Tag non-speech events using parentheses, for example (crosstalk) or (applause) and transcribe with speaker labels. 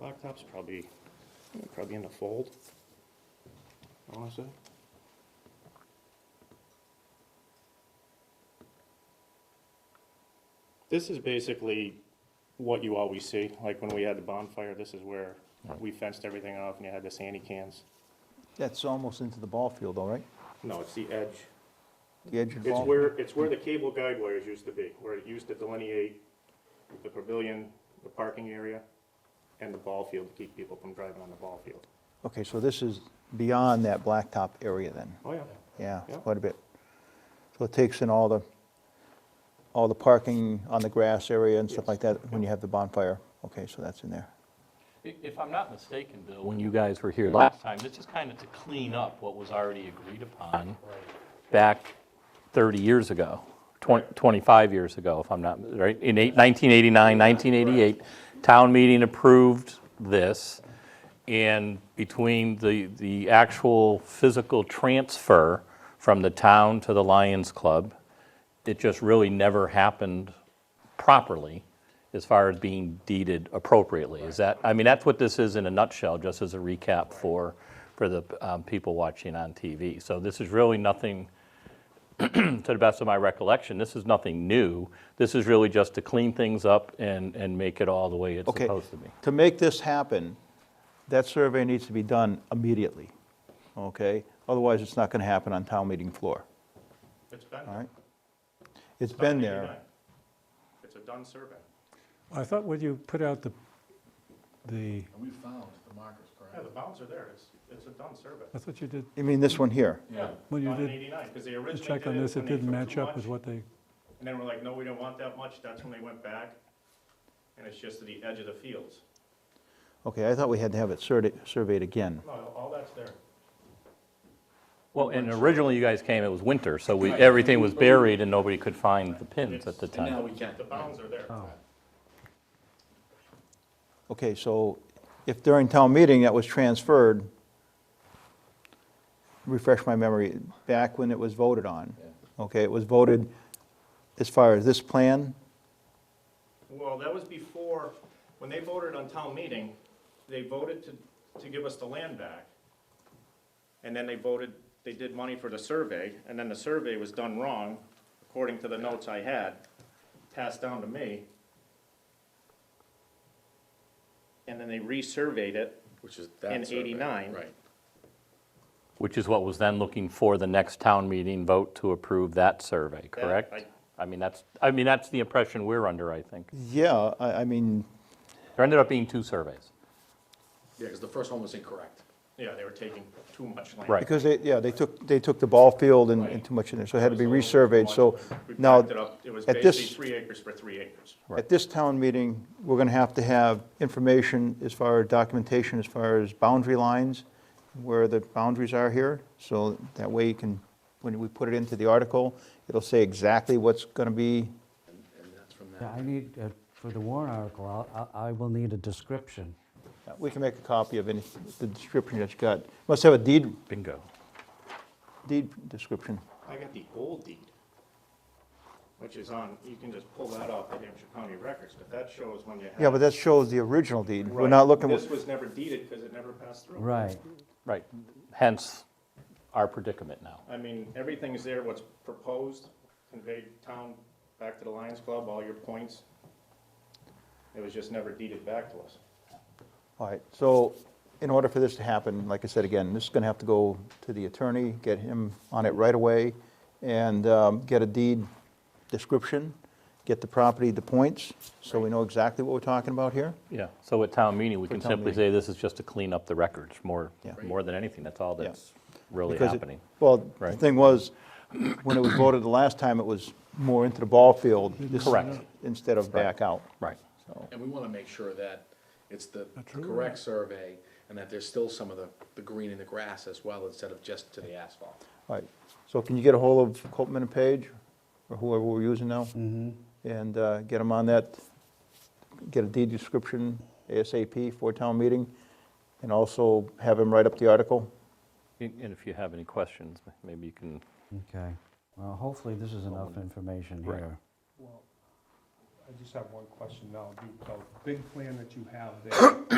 Speaker 1: blacktop's probably, probably in the fold, I wanna say. This is basically what you always see, like when we had the bonfire, this is where we fenced everything off and you had the sandy cans.
Speaker 2: That's almost into the ball field, all right?
Speaker 1: No, it's the edge.
Speaker 2: The edge of the
Speaker 1: It's
Speaker 2: ball?
Speaker 1: where, it's where the cable guide wires used to be, where it used to delineate the pavilion, the parking area, and the ball field to keep people from driving on the ball field.
Speaker 2: Okay, so this is beyond that blacktop area then?
Speaker 1: Oh, yeah.
Speaker 2: Yeah, it's
Speaker 1: Yeah.
Speaker 2: quite a bit. So it takes in all the, all the parking on the grass area and stuff
Speaker 1: Yes.
Speaker 2: like that when you have the bonfire? Okay, so that's in there.
Speaker 3: I- If I'm not mistaken, Bill, when you guys were here last time, this is kind of to clean up what was already agreed upon back 30 years ago, 20 25 years ago, if I'm not, right? In eight- 1989, 1988, town meeting approved this, and between the, the actual physical transfer from the town to the Lions Club, it just really never happened properly as far as being deeded appropriately. Is that, I mean, that's what this is in a nutshell, just as a recap for, for the um, people watching on TV. So this is really nothing, (clears throat) to the best of my recollection, this is nothing new. This is really just to clean things up and, and make it all the way it's
Speaker 2: Okay,
Speaker 3: supposed to be.
Speaker 2: to make this happen, that survey needs to be done immediately, okay? Otherwise, it's not going to happen on town meeting floor,
Speaker 1: It's been,
Speaker 2: all
Speaker 1: there.
Speaker 2: right? It's
Speaker 1: It's
Speaker 2: been
Speaker 1: not
Speaker 2: there.
Speaker 1: 89. It's a done survey.
Speaker 4: I thought when you put out the, the,
Speaker 5: We found the markers, correct?
Speaker 1: Yeah, the bounds are there, it's, it's a done survey.
Speaker 4: I thought you did,
Speaker 2: You mean this one here?
Speaker 1: Yeah.
Speaker 4: Well, you
Speaker 1: Done in
Speaker 4: did-
Speaker 1: eighty-nine, because they
Speaker 4: to
Speaker 1: originally
Speaker 4: check on
Speaker 1: did it
Speaker 4: this,
Speaker 1: when
Speaker 4: it
Speaker 1: they
Speaker 4: didn't
Speaker 1: took
Speaker 4: match
Speaker 1: too
Speaker 4: up with
Speaker 1: much,
Speaker 4: what they,
Speaker 1: And then we're like, no, we don't want that much, that's when they went back, and it's just to the edge of the fields.
Speaker 2: Okay, I thought we had to have it surte- surveyed again.
Speaker 1: No, all that's there.
Speaker 3: Well, and originally you guys came, it was winter, so we, everything was buried and nobody could find the pins at the
Speaker 5: And
Speaker 3: time.
Speaker 5: now we can.
Speaker 1: The bounds are there.
Speaker 2: Okay, so if during town meeting that was transferred, refresh my memory, back when it was voted on, okay, it was voted as far as this plan,
Speaker 1: Well, that was before, when they voted on town meeting, they voted to, to give us the land back. And then they voted, they did money for the survey, and then the survey was done wrong, according to the notes I had, passed down to me. And then they resurveyed it,
Speaker 5: Which is that
Speaker 1: In
Speaker 5: survey,
Speaker 1: 89.
Speaker 5: Right.
Speaker 3: Which is what was then looking for the next town meeting vote to approve that survey, correct?
Speaker 1: I-
Speaker 3: I mean, that's, I mean, that's the impression we're under, I think.
Speaker 2: yeah, I, I mean,
Speaker 3: There ended up being two surveys.
Speaker 5: Yeah, because the first one was incorrect.
Speaker 1: yeah, they were taking too much land.
Speaker 3: Right.
Speaker 2: Because they, yeah, they took, they took the ball field and, and too much in there, so it had to be resurveyed, so
Speaker 1: We
Speaker 2: now,
Speaker 1: backed it up, it was
Speaker 2: at
Speaker 1: basically
Speaker 2: this,
Speaker 1: three acres for three acres.
Speaker 2: at this town meeting, we're gonna have to have information as far as documentation, as far as boundary lines, where the boundaries are here, so that way you can, when we put it into the article, it'll say exactly what's gonna be,
Speaker 5: And that's from
Speaker 6: Yeah, I
Speaker 5: that.
Speaker 6: need, uh, for the warrant article, I'll- I I will need a description.
Speaker 2: we can make a copy of any, the description that you got. Must have a deed,
Speaker 3: Bingo.
Speaker 2: deed description.
Speaker 1: I got the old deed, which is on, you can just pull that off the Hampshire County records, but that shows when you had.
Speaker 2: Yeah, but that shows the original deed, we're not looking,
Speaker 1: This
Speaker 2: with-
Speaker 1: was never deeded because it never passed through.
Speaker 6: Right.
Speaker 3: Right, hence our predicament now.
Speaker 1: I mean, everything's there, what's proposed, conveyed town back to the Lions Club, all your points. It was just never deeded back to us.
Speaker 2: all right, so in order for this to happen, like I said again, this is gonna have to go to the attorney, get him on it right away, and um, get a deed description, get the property, the points, so we know exactly what we're talking about here.
Speaker 3: Yeah, so at town meeting, we can
Speaker 2: town
Speaker 3: simply
Speaker 2: meeting.
Speaker 3: say this is just to clean up the records more,
Speaker 2: Yeah.
Speaker 3: more than anything. That's all
Speaker 2: Yeah.
Speaker 3: that's really
Speaker 2: Because it-
Speaker 3: happening.
Speaker 2: Well, the
Speaker 3: Right.
Speaker 2: thing was, when it was voted the last time, it was more into the ball field. this-
Speaker 3: Correct.
Speaker 2: Instead of back out.
Speaker 3: Right.
Speaker 2: So,
Speaker 5: And we want to make sure that it's the
Speaker 4: That's right.
Speaker 5: correct survey and that there's still some of the, the green in the grass as well instead of just to the asphalt.
Speaker 2: all right. So can you get a hold of Copman and Page, or whoever we're using now? And uh, get them on that, get a deed description ASAP for town meeting, and also have him write up the article?
Speaker 3: And and if you have any questions, maybe you can,
Speaker 6: Okay. Well, hopefully this is enough information
Speaker 3: Right.
Speaker 6: here.
Speaker 7: I just have one question now, Duke. The big plan that you have there,